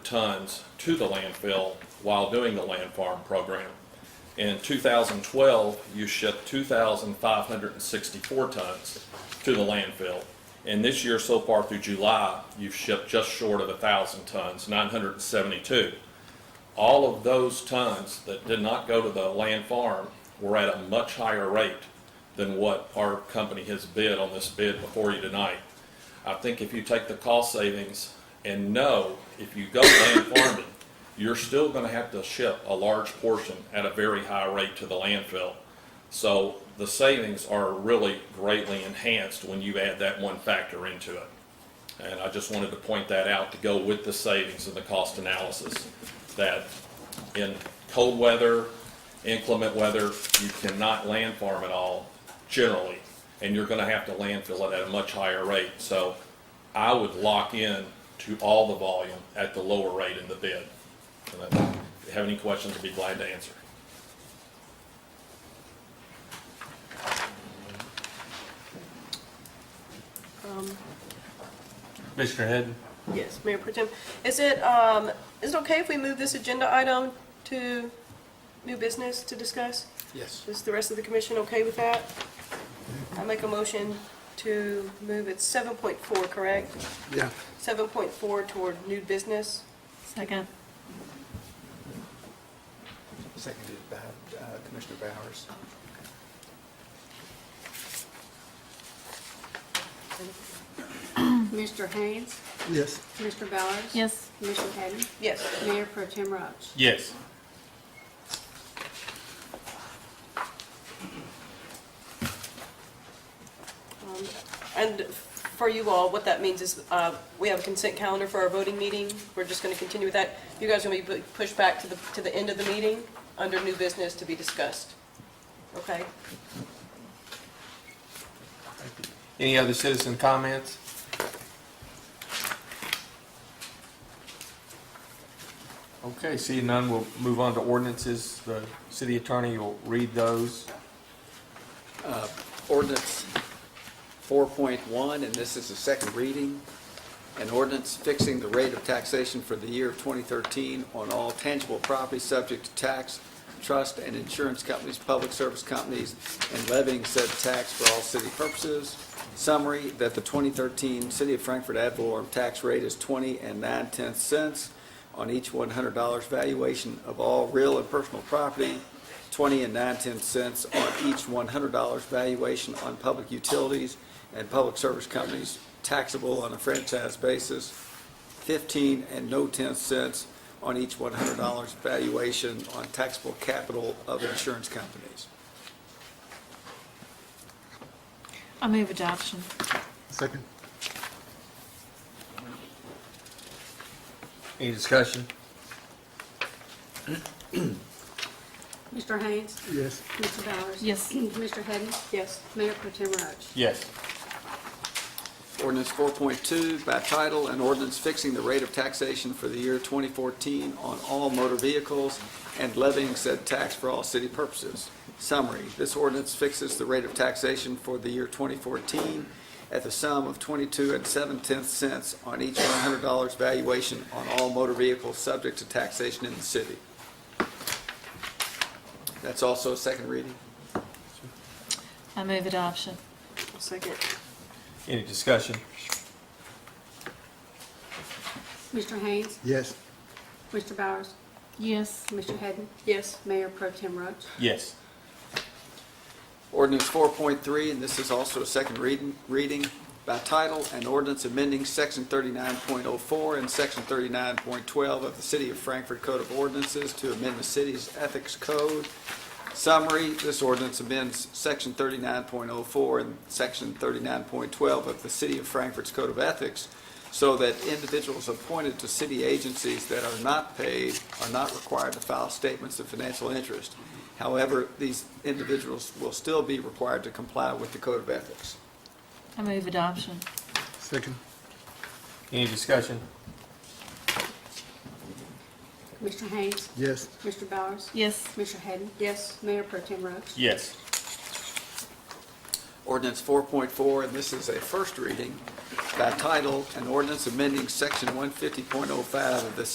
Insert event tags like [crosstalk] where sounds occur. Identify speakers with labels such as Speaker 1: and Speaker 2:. Speaker 1: tons to the landfill while doing the land farm program. In 2012, you shipped 2,564 tons to the landfill. And this year, so far through July, you've shipped just short of 1,000 tons, 972. All of those tons that did not go to the land farm were at a much higher rate than what our company has bid on this bid before you tonight. I think if you take the cost savings and know if you go land farming, you're still gonna have to ship a large portion at a very high rate to the landfill. So the savings are really greatly enhanced when you add that one factor into it. And I just wanted to point that out to go with the savings and the cost analysis, that in cold weather, inclement weather, you cannot land farm at all generally, and you're gonna have to landfill it at a much higher rate. So I would lock in to all the volume at the lower rate in the bid. And if you have any questions, I'd be glad to answer.
Speaker 2: Commissioner Head?
Speaker 3: Yes, Mayor Pro Tem. Is it, um, is it okay if we move this agenda item to new business to discuss?
Speaker 4: Yes.
Speaker 3: Is the rest of the commission okay with that? I make a motion to move it seven point four, correct?
Speaker 4: Yeah.
Speaker 3: Seven point four toward new business?
Speaker 5: Second.
Speaker 4: Seconded by uh, Commissioner Bowers.
Speaker 6: Mr. Haynes,
Speaker 4: Yes.
Speaker 6: Mr. Bowers.
Speaker 5: Yes.
Speaker 6: Commissioner Hadden,
Speaker 3: Yes.
Speaker 6: Mayor Pro Tim Roach.
Speaker 2: Yes.
Speaker 3: Um, And for you all, what that means is, uh, we have a consent calendar for our voting meeting. We're just gonna continue with that. You guys are gonna be pu- pushed back to the, to the end of the meeting under new business to be discussed. Okay?
Speaker 2: Any other citizen comments? Okay, seeing none, we'll move on to ordinances. The city attorney will read those.
Speaker 7: ordinance 4.1, and this is the second reading. An ordinance fixing the rate of taxation for the year of 2013 on all tangible property subject to tax, trust, and insurance companies, public service companies, and levying said tax for all city purposes. Summary, that the 2013 City of Frankfurt ad valorem tax rate is 20 and 9 tenths cents on each $100 valuation of all real and personal property, 20 and 9 tenths cents on each $100 valuation on public utilities and public service companies taxable on a franchise basis, 15 and no 10 cents on each $100 valuation on taxable capital of insurance companies.
Speaker 5: I move adoption.
Speaker 4: Second.
Speaker 2: Any discussion?
Speaker 6: Mr. Haynes,
Speaker 4: Yes.
Speaker 6: Mr. Bowers.
Speaker 5: Yes.
Speaker 6: [clears throat] Mr. Hadden,
Speaker 3: Yes.
Speaker 6: Mayor Pro Tim Roach.
Speaker 2: Yes.
Speaker 7: Ordinance 4.2 by title, an ordinance fixing the rate of taxation for the year 2014 on all motor vehicles and levying said tax for all city purposes. Summary, this ordinance fixes the rate of taxation for the year 2014 at the sum of 22 and 7 tenths cents on each $100 valuation on all motor vehicles subject to taxation in the city. That's also a second reading.
Speaker 5: I move adoption.
Speaker 3: Second.
Speaker 2: Any discussion?
Speaker 6: Mr. Haynes,
Speaker 4: Yes.
Speaker 6: Mr. Bowers,
Speaker 5: Yes.
Speaker 6: Mr. Hadden,
Speaker 3: Yes.
Speaker 6: Mayor Pro Tim Roach.
Speaker 2: Yes.
Speaker 7: Ordinance 4.3, and this is also a second reading, reading by title, an ordinance amending Section 39.04 and Section 39.12 of the City of Frankfurt Code of Ordinances to amend the city's ethics code. Summary, this ordinance amends Section 39.04 and Section 39.12 of the City of Frankfurt's Code of Ethics so that individuals appointed to city agencies that are not paid are not required to file statements of financial interest. However, these individuals will still be required to comply with the Code of Ethics.
Speaker 5: I move adoption.
Speaker 4: Second.
Speaker 2: Any discussion?
Speaker 6: Mr. Haynes,
Speaker 4: Yes.
Speaker 6: Mr. Bowers,
Speaker 5: Yes.
Speaker 6: Mr. Hadden,
Speaker 3: Yes.
Speaker 6: Mayor Pro Tim Roach.
Speaker 2: Yes.
Speaker 7: Ordinance 4.4, and this is a first reading by title, an ordinance amending Section 150.05 of the